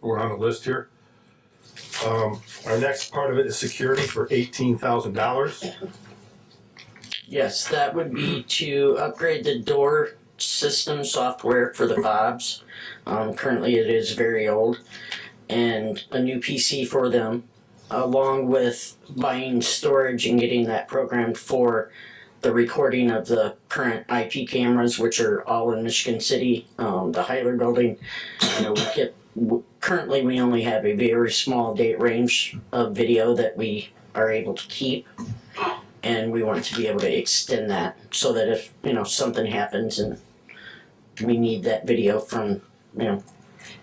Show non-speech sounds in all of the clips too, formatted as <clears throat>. we're on the list here. Um, our next part of it is security for eighteen thousand dollars. Yes, that would be to upgrade the door system software for the fobs. Um, currently, it is very old, and a new PC for them, along with buying storage and getting that programmed for the recording of the current IP cameras, which are all in Michigan City, um, the Hyler building. You know, we get, w- currently, we only have a very small date range of video that we are able to keep and we want to be able to extend that so that if you know something happens and we need that video from you know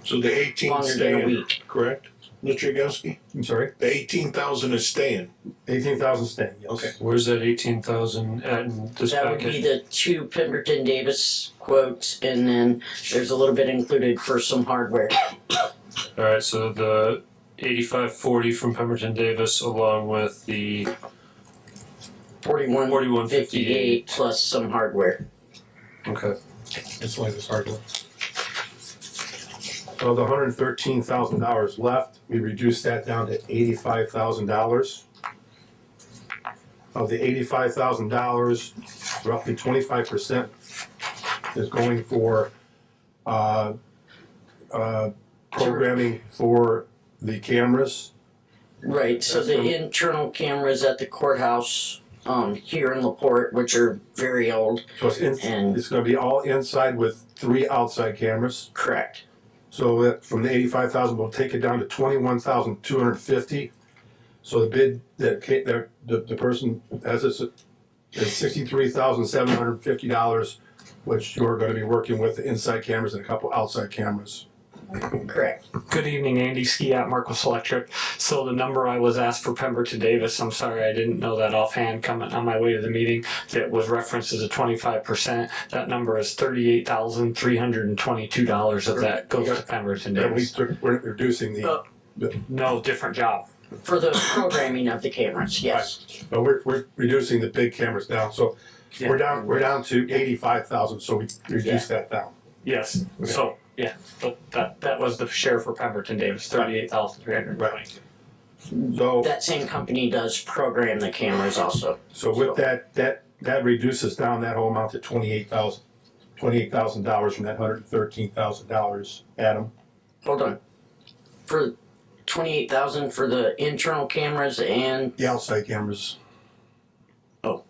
So the eighteen longer than a staying, week. correct? Mr. Yagowski? I'm sorry, The eighteen thousand is staying. eighteen thousand staying, yes. Okay. Where's that eighteen thousand at in this That would be packet? the two Pemberton Davis quotes, and then there's a little bit included for some hardware. Alright, so the eighty-five forty from Pemberton Davis along with the Forty-one forty-one fifty-eight fifty-eight. plus some hardware. Okay, That's why it's hard one. Of the hundred and thirteen thousand dollars left, we reduced that down to eighty-five thousand dollars. Of the eighty-five thousand dollars, roughly twenty-five percent is going for, uh, uh, programming for the cameras. Right. So That's the from- internal cameras at the courthouse um, here in Laporte, which are very old. So it's, in- And- it's gonna be all inside with three outside cameras. Correct. So that from the eighty-five thousand, we'll take it down to twenty-one thousand two hundred fifty. So the bid that ca- that the, the person has this is sixty-three thousand seven hundred fifty dollars, which you're gonna be working with the inside cameras and a couple outside cameras. Correct. Good evening, Andy Ski at Marcus Electric. So the number I was asked for Pemberton Davis, I'm sorry I didn't know that offhand coming on my way to the meeting, that was referenced as a twenty-five percent. That number is thirty-eight thousand three hundred and twenty-two dollars of that goes to Pemberton And we, Davis. took- we're reducing the, No, different job. For the programming of the cameras, yes. but we're, we're reducing the big cameras down, so we're down, we're down to eighty-five thousand, so we reduce that down. Yes, so, yeah, so that, that was the share for Pemberton Davis, thirty-eight thousand three hundred and twenty-two. So. That same company does program the cameras also. So with that, that, that reduces down that whole amount to twenty-eight thousand, twenty-eight thousand dollars from that hundred and thirteen thousand dollars, Adam. Hold on. For twenty-eight thousand for the internal cameras and The outside cameras. Oh.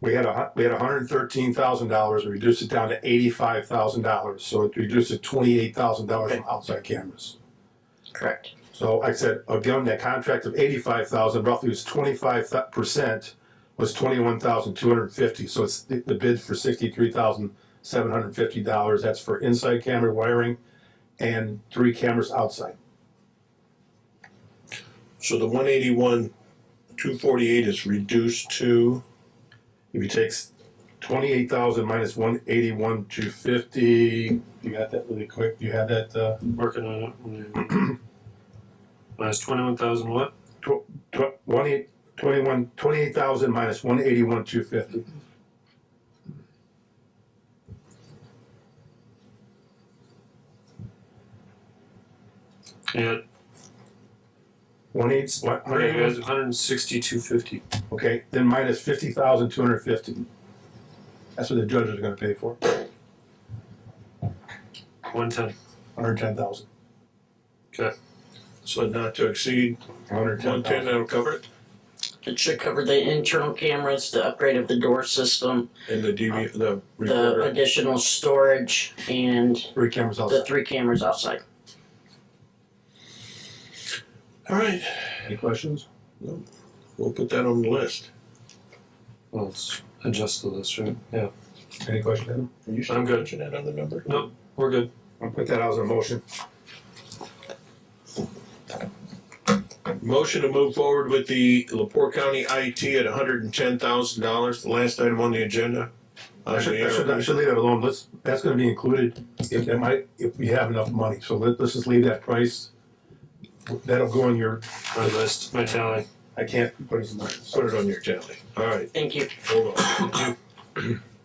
We had a, hu- we had hundred and thirteen thousand dollars, we reduced it down to eighty-five thousand dollars, so it reduced to twenty-eight thousand dollars from outside cameras. correct. So I said, again, that contract of eighty-five thousand roughly was twenty-five percent, was twenty-one thousand two hundred and fifty, so it's the the bid for sixty-three thousand seven hundred and fifty dollars, that's for inside camera wiring and three cameras outside. So the one eighty-one, two forty-eight is reduced to, If you take twenty-eight thousand minus one eighty-one two fifty, you got that really quick, you had that, uh, working on it. <clears throat> Minus twenty-one thousand what? tw- one eight, twenty-one, twenty-eight thousand minus one eighty-one two fifty. Yeah, One eight, one yeah, hundred, guys, one hundred and sixty-two fifty. Okay, then minus fifty thousand two hundred fifty. That's what the judge is gonna pay for, One ten. hundred ten thousand. so not to exceed Hundred ten one ten, thousand. that'll cover it, It should cover the internal cameras, the upgrade of the door system, and the DV, the the recorder. additional storage, and Three cameras the outside. three cameras outside. All right, Any questions? we'll put that on the list. Well, let's adjust the list, right? Yeah, Any question, Adam? Are you still I'm good. mentioning that on the number? we're good. I'll put that out as a motion. Motion to move forward with the Lepore County IT at hundred and ten thousand dollars, the last item on the agenda. I Uh, should, yeah, I should, I should leave that alone, let's, that's gonna be included, if, that might, if we have enough money, so let, let's just leave that price. That'll go in your, My list, my tally. I can't put it in mine, so Put it on your tally. All right, Thank you. hold on.